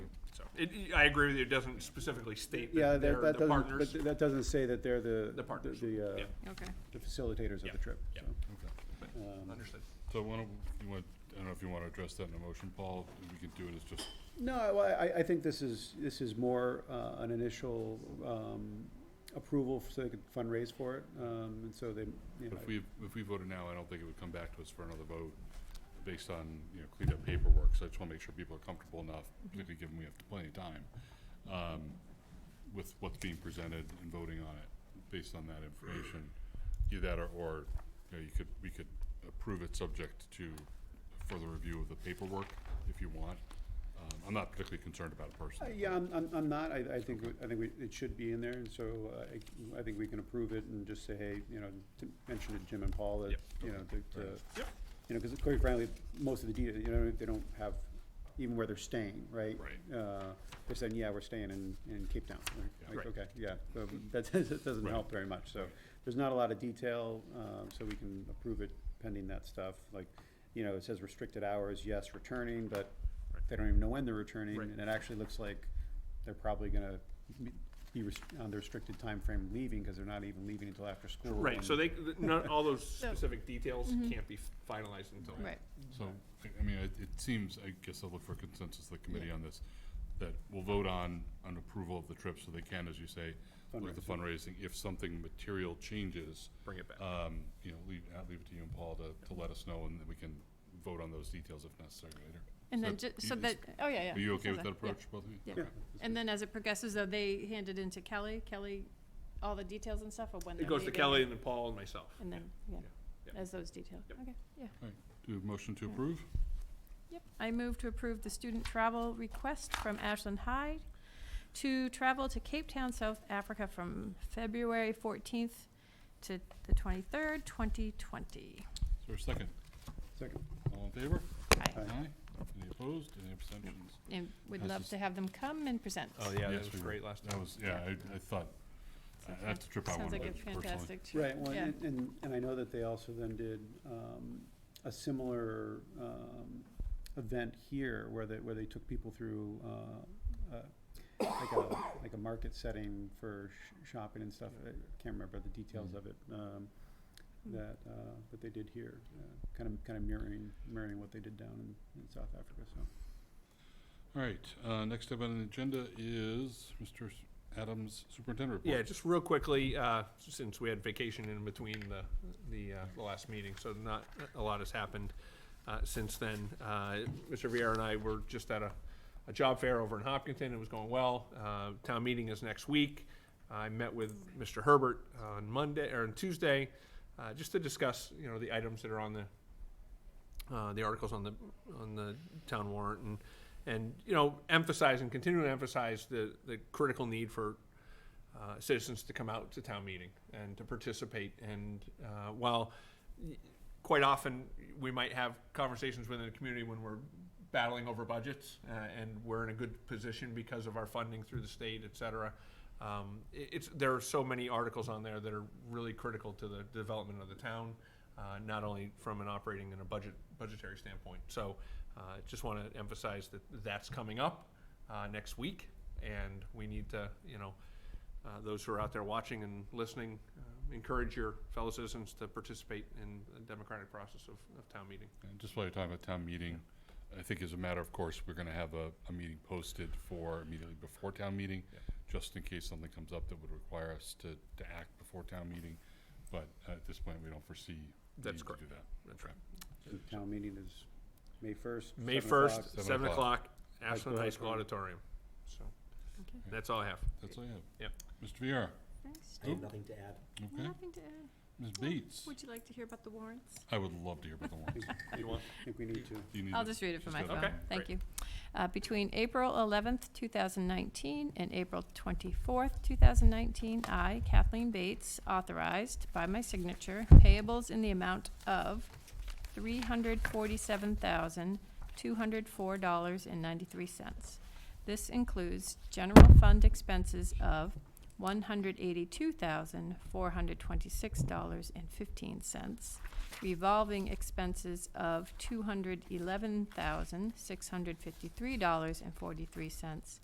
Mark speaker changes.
Speaker 1: It, I agree with you, it doesn't specifically state
Speaker 2: Yeah,
Speaker 1: that
Speaker 2: that,
Speaker 1: they're
Speaker 2: that
Speaker 1: the
Speaker 2: doesn't,
Speaker 1: partners.
Speaker 2: but that doesn't say that they're the.
Speaker 1: The partners,
Speaker 2: The, uh,
Speaker 1: yeah.
Speaker 3: Okay.
Speaker 2: the facilitators of
Speaker 1: Yeah,
Speaker 2: the trip,
Speaker 1: yeah.
Speaker 2: so. um,
Speaker 1: Understood.
Speaker 4: So why don't, you want, I don't know if you want to address that in a motion, Paul, we could do it as just,
Speaker 2: No, I- well, I, I think this is, this is more uh, an initial um, approval so they could fundraise for it. um, And so they, you know,
Speaker 4: if we, if we voted now, I don't think it would come back to us for another vote based on, you know, cleaned up paperwork, so I just want to make sure people are comfortable enough, particularly given we have plenty of time, um, with what's being presented and voting on it, based on that information. Either that or, or, you know, you could, we could approve it subject to further review of the paperwork, if you want. Um, I'm not particularly concerned about it
Speaker 2: Uh,
Speaker 4: personally.
Speaker 2: Yeah, I'm, I'm, I'm not, I, I think, we- I think we- it should be in there, and so uh, I, I think we can approve it and just say, hey, you know, to mention to Jim and Paul that,
Speaker 1: Yep.
Speaker 2: you know, that, uh,
Speaker 1: Yep.
Speaker 2: you know, because quite frankly, most of the detail, you know, they don't have, even where they're staying, right?
Speaker 4: Right.
Speaker 2: Uh, they're saying, yeah, we're staying in, in Cape Town, Like-
Speaker 4: Yeah.
Speaker 2: like,
Speaker 1: Right.
Speaker 2: okay, yeah, so that, that doesn't
Speaker 4: Right.
Speaker 2: help very much, so. There's not a lot of detail, um, so we can approve it pending that stuff, like, you know, it says restricted hours, yes, returning, but
Speaker 1: Right.
Speaker 2: they don't even know when they're returning,
Speaker 1: Right.
Speaker 2: and it actually looks like they're probably gonna be- be rest- on the restricted time frame leaving, cause they're not even leaving until after school.
Speaker 1: Right,
Speaker 2: and-
Speaker 1: so they, th- none, all those specific details can't be finalized until.
Speaker 3: Right.
Speaker 4: So, I I mean, it, it seems, I guess I'll look for consensus of the committee on this, that we'll vote on, on approval of the trip, so they can, as you say, look at the fundraising, if something material changes,
Speaker 1: Bring it back.
Speaker 4: um, you know, leave, I'll leave it to you and Paul to, to let us know, and then we can vote on those details if necessary later.
Speaker 3: And
Speaker 4: So
Speaker 3: then,
Speaker 4: that-
Speaker 3: ju- so
Speaker 4: you-
Speaker 3: that, oh, yeah, yeah.
Speaker 4: Are you okay
Speaker 3: sounds
Speaker 4: with
Speaker 3: like-
Speaker 4: that
Speaker 3: yeah.
Speaker 4: approach, both of you?
Speaker 3: yeah.
Speaker 2: Yeah.
Speaker 4: Okay.
Speaker 3: And then as it progresses, though, they hand it into Kelly, Kelly, all the details and stuff of when they're
Speaker 1: It goes to
Speaker 3: leaving
Speaker 1: Kelly and then Paul and myself.
Speaker 3: And then, yeah,
Speaker 1: Yeah.
Speaker 3: as those details,
Speaker 1: Yep.
Speaker 3: okay, yeah.
Speaker 4: All right, do we have a motion
Speaker 3: Mm.
Speaker 4: to approve?
Speaker 3: Yep, I move to approve the student travel request from Ashland Hyde to travel to Cape Town, South Africa from February fourteenth to the twenty-third, twenty twenty.
Speaker 4: Is there a second?
Speaker 2: Second.
Speaker 4: All in favor?
Speaker 2: Aye.
Speaker 4: Any opposed? Any abstentions?
Speaker 3: And would
Speaker 4: This
Speaker 3: love
Speaker 4: is-
Speaker 3: to have them come and present.
Speaker 1: Oh, yeah,
Speaker 4: Yes,
Speaker 1: that was
Speaker 4: we will.
Speaker 1: great last
Speaker 4: That
Speaker 1: time.
Speaker 4: was, yeah, I, I thought,
Speaker 3: Sounds
Speaker 4: I- that's the trip I
Speaker 3: Sounds
Speaker 4: wanted
Speaker 3: like
Speaker 4: to
Speaker 3: a
Speaker 4: personally.
Speaker 3: fantastic trip.
Speaker 2: Right, well,
Speaker 3: Yeah.
Speaker 2: and, and, and I know that they also then did, um, a similar, um, event here where they, where they took people through, uh, uh, like a, like a market setting for sh- shopping and stuff. I can't remember the details of it, um,
Speaker 3: Mm.
Speaker 2: that, uh, that they did here, uh, kind of, kind of mirroring, mirroring what they did down in, in South Africa, so.
Speaker 4: All right, uh, next up on the agenda is Mr. S- Adams Superintendent
Speaker 1: Yeah,
Speaker 4: Report.
Speaker 1: just real quickly, uh, since we had vacation in between the, the, uh, the last meeting, so not, a lot has happened, uh, since then. Uh, Mr. Vieira and I were just at a, a job fair over in Hopkinton, it was going well, uh, town meeting is next week. I met with Mr. Herbert on Monday, or on Tuesday, uh, just to discuss, you know, the items that are on the, uh, the articles on the, on the town warrant, and, and, you know, emphasize and continue to emphasize the, the critical need for uh, citizens to come out to town meeting and to participate. And uh, while y- quite often we might have conversations within the community when we're battling over budgets uh, and we're in a good position because of our funding through the state, et cetera. Um, i- it's, there are so many articles on there that are really critical to the development of the town, uh, not only from an operating and a budget, budgetary standpoint. So uh, just want to emphasize that that's coming up uh, next week and we need to, you know, uh, those who are out there watching and listening, uh, encourage your fellow citizens to participate in the democratic process of, of town meeting.
Speaker 4: And just while you're talking about town meeting, I think as a matter of course, we're gonna have a, a meeting posted for immediately before town meeting,
Speaker 1: Yeah.
Speaker 4: just in case something comes up that would require us to, to act before town meeting. But uh, at this point, we don't foresee needing
Speaker 1: That's
Speaker 4: to do
Speaker 1: correct.
Speaker 4: that.
Speaker 1: That's right.
Speaker 2: The town meeting is May first.
Speaker 1: May first,
Speaker 4: Seven
Speaker 1: seven
Speaker 4: o'clock.
Speaker 1: o'clock, Ashland High School Auditorium. So,
Speaker 3: Okay.
Speaker 1: that's all I have.
Speaker 4: That's all I have.
Speaker 1: Yep.
Speaker 4: Mr. Viera,
Speaker 3: Thanks.
Speaker 5: I have nothing to add.
Speaker 4: okay?
Speaker 3: Nothing to add.
Speaker 4: Ms. Bates,
Speaker 3: Would you like to hear about the warrants?
Speaker 4: I would love to hear about the warrants.
Speaker 1: You want-
Speaker 2: I think we need to.
Speaker 4: Do you need
Speaker 3: I'll
Speaker 4: to-
Speaker 3: just read it from my
Speaker 4: just go
Speaker 3: phone.
Speaker 4: down?
Speaker 1: Okay,
Speaker 3: Thank
Speaker 1: great.
Speaker 3: you. Uh, Between April 11th, 2019 and April 24th, 2019, I, Kathleen Bates, authorized by my signature payables in the amount of $347,204.93. This includes general fund expenses of $182,426.15, revolving expenses of $211,653.43,